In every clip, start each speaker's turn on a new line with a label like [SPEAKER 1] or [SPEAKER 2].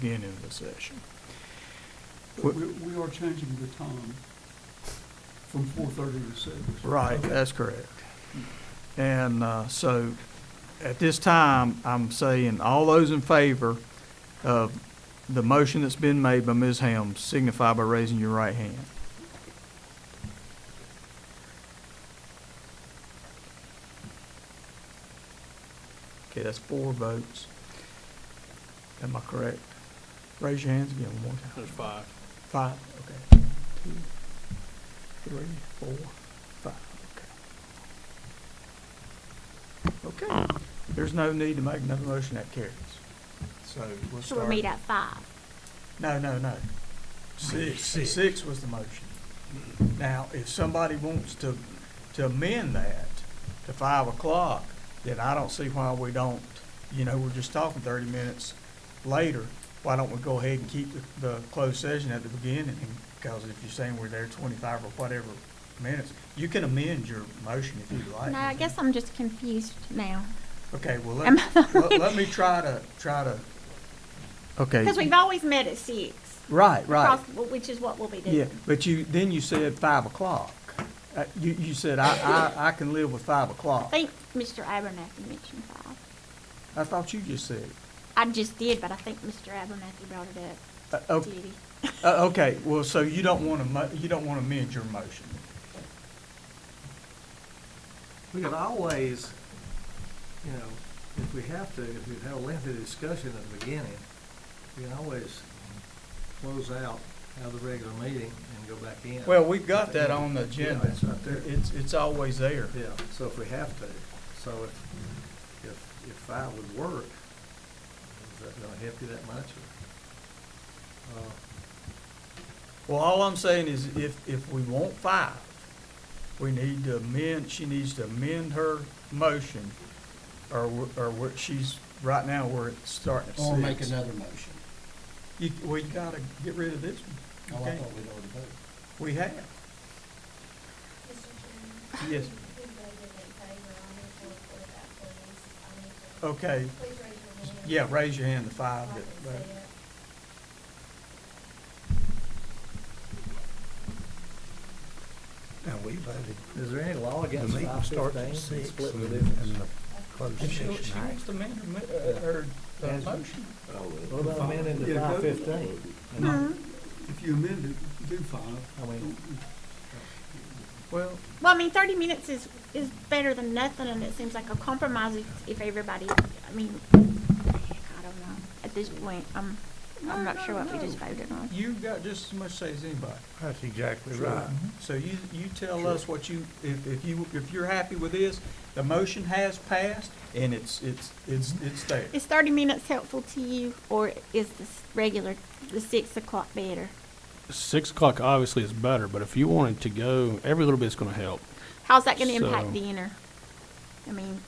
[SPEAKER 1] beginning of the session.
[SPEAKER 2] But we, we are changing the time from four thirty to six.
[SPEAKER 1] Right, that's correct. And uh, so, at this time, I'm saying, all those in favor of the motion that's been made by Ms. Helm signify by raising your right hand. Okay, that's four votes. Am I correct? Raise your hands again one more time.
[SPEAKER 3] There's five.
[SPEAKER 1] Five, okay. Two, three, four, five, okay. Okay, there's no need to make another motion that carries. So we'll start.
[SPEAKER 4] So we'll meet at five.
[SPEAKER 1] No, no, no. Six,
[SPEAKER 3] Six.
[SPEAKER 1] six was the motion. Now, if somebody wants to, to amend that to five o'clock, then I don't see why we don't, you know, we're just talking thirty minutes later. Why don't we go ahead and keep the, the closed session at the beginning? Because if you're saying we're there twenty-five or whatever minutes, you can amend your motion if you like.
[SPEAKER 4] No, I guess I'm just confused now.
[SPEAKER 1] Okay, well,
[SPEAKER 4] Am
[SPEAKER 1] let,
[SPEAKER 4] I-
[SPEAKER 1] let- let me try to, try to. Okay.
[SPEAKER 4] Because we've always met at six.
[SPEAKER 1] Right, right.
[SPEAKER 4] across- Which is what we'll be
[SPEAKER 1] Yeah,
[SPEAKER 4] doing.
[SPEAKER 1] but you, then you said five o'clock. Uh, You, you said, I, I, I can live with five
[SPEAKER 4] I
[SPEAKER 1] o'clock.
[SPEAKER 4] think Mr. Abernathy mentioned five.
[SPEAKER 1] I thought you just said.
[SPEAKER 4] I just did, but I think Mr. Abernathy brought it
[SPEAKER 1] Uh,
[SPEAKER 4] up.
[SPEAKER 1] Okay,
[SPEAKER 4] Did he?
[SPEAKER 1] uh, okay, well, so you don't want to, mo- you don't want to amend your motion.
[SPEAKER 3] We could always, you know, if we have to, if we've had a lengthy discussion at the beginning, we can always close out, have the regular meeting and go back in.
[SPEAKER 1] Well, we've got that on the
[SPEAKER 3] Yeah,
[SPEAKER 1] agenda.
[SPEAKER 3] it's right there.
[SPEAKER 1] It's, it's always there.
[SPEAKER 3] Yeah, so if we have to, so if, if, if five would work, is that gonna help you that much or? uh,
[SPEAKER 1] Well, all I'm saying is if, if we want five, we need to amend, she needs to amend her motion or, we're- or what she's, right now, we're starting at six.
[SPEAKER 5] Or make another motion.
[SPEAKER 1] You, we gotta get rid of this
[SPEAKER 5] Oh,
[SPEAKER 1] one.
[SPEAKER 5] I
[SPEAKER 1] Okay.
[SPEAKER 5] thought we'd already voted.
[SPEAKER 1] We have.
[SPEAKER 6] Mr. Chairman.
[SPEAKER 1] Yes.
[SPEAKER 6] Who voted in favor? I need to report that, please. I need to-
[SPEAKER 1] Okay,
[SPEAKER 6] Please raise your
[SPEAKER 1] yeah,
[SPEAKER 6] hand.
[SPEAKER 1] raise your hand, the
[SPEAKER 6] I
[SPEAKER 1] five
[SPEAKER 6] can
[SPEAKER 1] that,
[SPEAKER 6] see
[SPEAKER 1] that-
[SPEAKER 6] it.
[SPEAKER 7] Now, we voted
[SPEAKER 3] Is there any law
[SPEAKER 7] the
[SPEAKER 3] against
[SPEAKER 7] meeting
[SPEAKER 3] five
[SPEAKER 7] starts
[SPEAKER 3] fifteen,
[SPEAKER 7] at six
[SPEAKER 3] split
[SPEAKER 7] and
[SPEAKER 3] the
[SPEAKER 7] and
[SPEAKER 3] difference?
[SPEAKER 7] the closed
[SPEAKER 1] If she,
[SPEAKER 7] session.
[SPEAKER 1] she
[SPEAKER 7] I-
[SPEAKER 1] wants to amend her, mo- uh, her, uh,
[SPEAKER 3] As-
[SPEAKER 1] motion.
[SPEAKER 3] What about amending to
[SPEAKER 2] Yeah,
[SPEAKER 3] five
[SPEAKER 2] go-
[SPEAKER 3] fifteen?
[SPEAKER 4] Hmm.
[SPEAKER 2] If you amend it, do five.
[SPEAKER 3] I mean,
[SPEAKER 1] Well,
[SPEAKER 4] Well, I mean, thirty minutes is, is better than nothing, and it seems like a compromise if, if everybody, I mean, I don't know. At this point, I'm, I'm
[SPEAKER 1] No,
[SPEAKER 4] not sure
[SPEAKER 1] no,
[SPEAKER 4] what we just
[SPEAKER 1] no.
[SPEAKER 4] voted on.
[SPEAKER 1] you've got just as much say as anybody.
[SPEAKER 7] That's exactly right.
[SPEAKER 8] Mm-hmm.
[SPEAKER 1] So you, you tell us what you, if, if you, if you're happy with this, the motion has passed and it's, it's, it's, it's there.
[SPEAKER 4] Is thirty minutes helpful to you, or is this regular, the six o'clock better?
[SPEAKER 8] Six o'clock obviously is better, but if you wanted to go, every little bit's going to help.
[SPEAKER 4] How's that gonna impact
[SPEAKER 8] So-
[SPEAKER 4] dinner? I mean,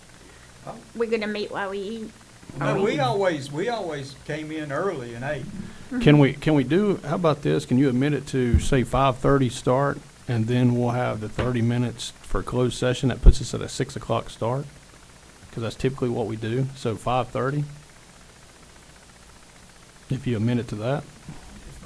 [SPEAKER 4] we're gonna meet while we eat.
[SPEAKER 1] No, we always, we always came in early and ate.
[SPEAKER 8] Can we? Can we do? How about this? Can you admit it to say five thirty start, and then we'll have the thirty minutes for closed session that puts us at a six o'clock start, because that's typically what we do. So five thirty. If you amend it to that,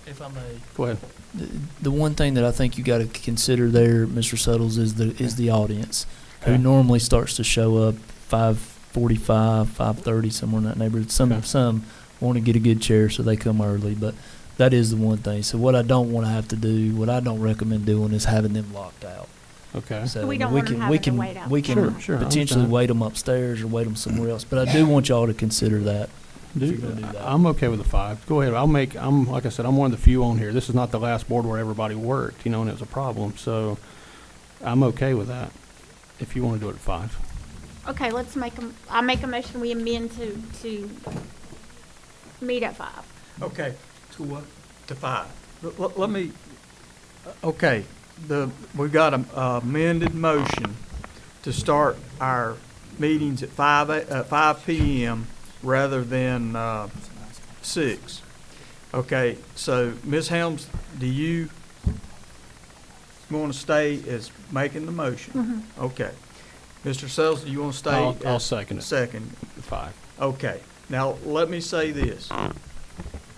[SPEAKER 9] If I may,
[SPEAKER 8] go ahead.
[SPEAKER 9] the, the one thing that I think you got to consider there, Mr. Suttles, is the is the audience,
[SPEAKER 8] Okay.
[SPEAKER 9] who normally starts to show up five forty five, five thirty, somewhere in that neighborhood. Some
[SPEAKER 8] Okay.
[SPEAKER 9] some want to get a good chair, so they come early, but. That is the one thing. So what I don't want to have to do, what I don't recommend doing, is having them locked out.
[SPEAKER 8] Okay.
[SPEAKER 9] So
[SPEAKER 4] We
[SPEAKER 9] I mean,
[SPEAKER 4] don't want
[SPEAKER 9] we
[SPEAKER 4] 'em
[SPEAKER 9] can we
[SPEAKER 4] having to
[SPEAKER 9] can
[SPEAKER 4] wait out
[SPEAKER 9] we
[SPEAKER 4] the
[SPEAKER 9] can
[SPEAKER 4] Sure,
[SPEAKER 8] night. sure, I
[SPEAKER 9] potentially
[SPEAKER 8] understand.
[SPEAKER 9] wait them upstairs or wait them somewhere else. But I do want y'all to consider that. if you're gonna do
[SPEAKER 8] Do,
[SPEAKER 9] that.
[SPEAKER 8] I'm okay with the five. Go ahead. I'll make, I'm, like I said, I'm one of the few on here. This is not the last board where everybody worked, you know, and it was a problem, so I'm okay with that. If you want to do it at five.
[SPEAKER 4] Okay, let's make them, I make a motion, we amend to, to meet at five.
[SPEAKER 1] Okay,
[SPEAKER 2] To what?
[SPEAKER 1] to five. Let- Let, let me, okay, the, we got a amended motion to start our meetings at five, a- uh, five PM rather than, uh, six. Okay, so Ms. Helms, do you want to stay as making the motion? Okay. Mr. Sells, do you want to stay?
[SPEAKER 8] I'll, I'll
[SPEAKER 1] as
[SPEAKER 8] second it,
[SPEAKER 1] Second,
[SPEAKER 8] five.
[SPEAKER 1] okay. Now, let me say this.